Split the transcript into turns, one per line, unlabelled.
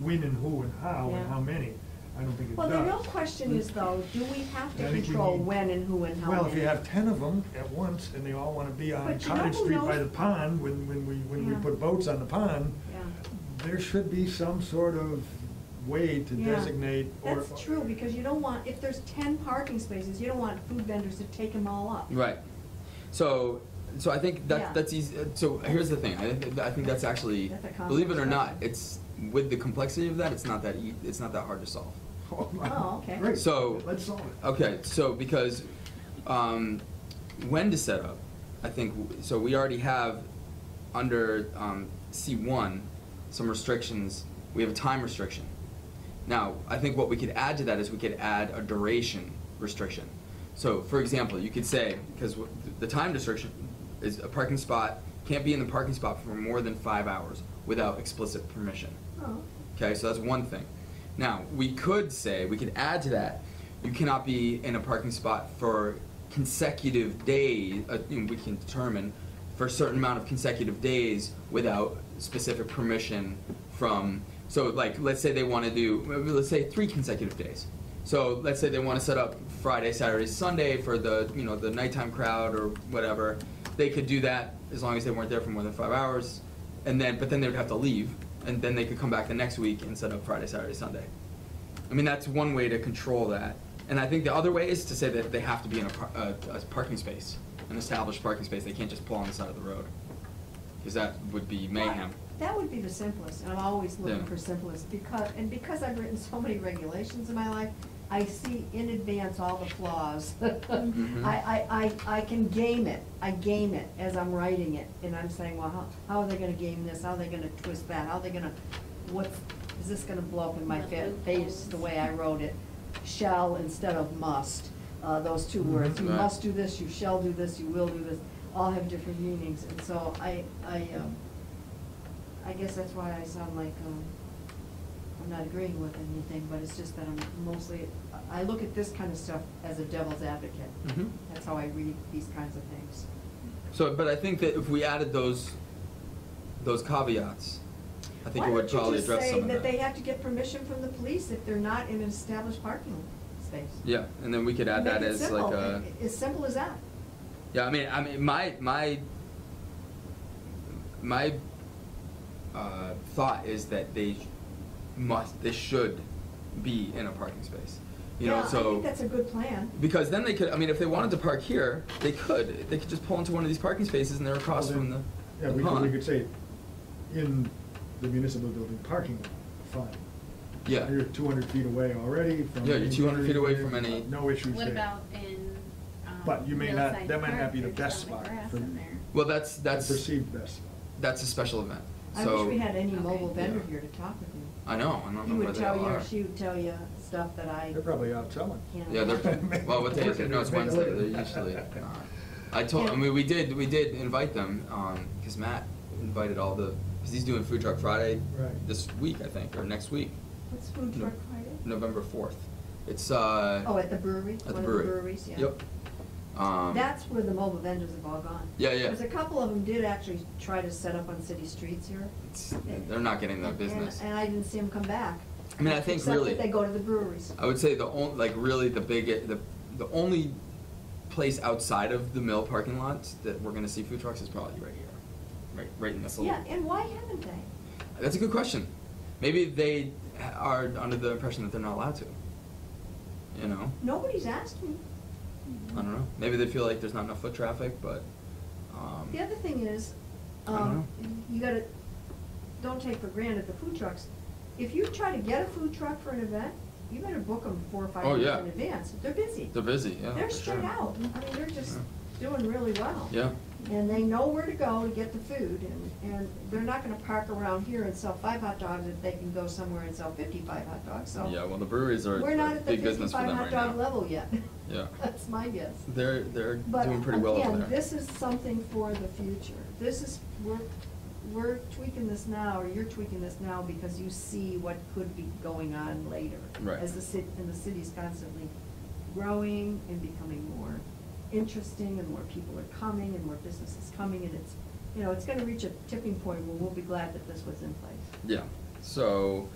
when and who and how
Yeah.
and how many, I don't think it does.
Well, the real question is though, do we have
I
to
think we
control
need-
when and who and how many?
Well, if you have ten of them at once, and they all wanna be on
But you know
Cottage
who
Street by the
knows-
pond, when, when we, when we
Yeah.
put boats on the pond,
Yeah.
there should be some sort of way to
Yeah.
designate or.
That's true, because you don't want, if there's ten parking spaces, you don't want food vendors to take them all up.
Right. So, so I think that
Yeah.
that's easy. uh, So here's the thing. I, th- I think that's actually,
That's a complex
believe it or not,
question.
it's with the complexity of that, it's not that e- it's not that hard to solve.
Oh, okay.
Great,
So-
let's solve it.
Okay, so because um, when to set up, I think w- so. We already have under um, C1 some restrictions. We have a time restriction. Now, I think what we could add to that is we could add a duration restriction. So, for example, you could say because w- the time restriction is a parking spot can't be in the parking spot for more than five hours without explicit permission.
Oh,
Okay, so that's one thing. Now, we could say, we could add to that, you cannot be in a parking spot for consecutive days, uh, you know, we can determine, for a certain amount of consecutive days without specific permission from, so like, let's say they want to do, maybe let's say three consecutive days. So let's say they want to set up Friday, Saturday, Sunday for the, you know, the nighttime crowd or whatever. They could do that as long as they weren't there for more than five hours and then but then they would have to leave and then they could come back the next week and set up friday saturday sunday i mean that's one way to control that and i think the other way is to say that they have to be in a, par- a, a parking space an established parking space they can't just pull on the side of the road because that would be mayhem
Well, That would be the simplest, and I'm always looking
Yeah.
for simplest, because, and because I've written so many regulations in my life, I see in advance all the flaws.
Mm-hmm.
I, I, I, I can game it, I game it as I'm writing it, and I'm saying, well, how, how are they gonna game this, how are they gonna twist that, how are they gonna, what's, is this gonna blow up in my fa- face, the way I wrote it? Shall instead of must, uh, those two words, you
Mm-hmm. Right.
must do this, you shall do this, you will do this, all have different meanings, and so I, I, um, I guess that's why I sound like, um, I'm not agreeing with anything, but it's just that I'm mostly, I look at this kind of stuff as a devil's advocate.
Mhm.
That's how I read these kinds of things.
so but i think that if we added those those caveats i think it would probably address some
Why
of
don't you just say that they have to get permission from the police if they're not in an established parking space?
yeah and then we could add that
Make it
as
simple,
like a
a- As simple as that.
Yeah, I mean, I mean, my my my uh, thought is that they must, they should be in a parking space. You know, so
Yeah, I think that's a good plan.
because then they could. I mean, if they wanted to park here, they could. They could just pull into one of these parking spaces and they're across
Well,
from
then-
the.
Yeah,
the
we could, we
pond.
could say, in the municipal building parking lot, fine.
Yeah.
You're two hundred feet away already from.
Yeah, you're
any
200 feet away from
danger,
any-
No issues
What
there.
about in, um,
But you may not-
Hillside
that might not
Park,
be the
there's
best
all the
spot
grass
for-
in there.
Well, that's that's
Perceived best.
that's a special event.
I
so
wish we had any
Okay.
mobile vendor
Yeah.
here to talk with you.
I know. I don't
He
know where
would
they
tell
all
you,
are.
or she would tell you stuff that I.
They're probably out selling.
can't
Yeah, they're,
imagine.
well, what day is it? No, it's Wednesday, they're usually not. I told, I mean, we did, we did invite them, um, cause Matt invited all the, cause he's doing Food Truck Friday
Right.
this week, I think, or next week,
What's food
No.
truck Friday?
November fourth. It's, uh.
Oh, at the brewery?
At
One
the
of
brewery.
breweries, yeah.
Yep. Um.
That's where the mobile vendors have all gone.
Yeah, yeah.
Because a couple of them did actually try to set up on city streets here.
It's- They're not getting that
And-
business.
And I didn't see them come back.
I mean, I think really-
Except that they go to the breweries.
I would say the only, like really the big, the, the only place outside of the mill parking lot that we're gonna see food trucks is probably right here. Right, right in this little.
Yeah, and why haven't they?
That's a good question. Maybe they are under the impression that they're not allowed to. You know,
Nobody's asked me.
I don't know. Maybe they feel like there's not enough foot traffic, but. Um,
The other thing is,
I don't
um, you gotta, don't take for granted the food trucks. If you try to get a food truck for an event, you better book them four or five
Oh,
years
yeah.
in advance. They're busy.
They're busy. Yeah.
They're
for
straight
sure.
out. I mean, they're just doing really well.
Yeah.
And they know where to go to get the food, and, and they're not gonna park around here and sell five hot dogs if they can go somewhere and sell fifty-five hot dogs, so.
Yeah. Well, the breweries are
We're not
a
at the
big business for
fifty-five
them
hot
right now.
dog level yet.
Yeah.
That's my guess.
They're they're
But
doing pretty well over there.
again, this is something for the future. This is, we're, we're tweaking this now, or you're tweaking this now because you see what could be going on later.
Right.
As the cit, and the city's constantly growing and becoming more interesting and more people are coming and more businesses coming and it's, you know, it's gonna reach a tipping point where we'll be glad that this was in place.
Yeah. So,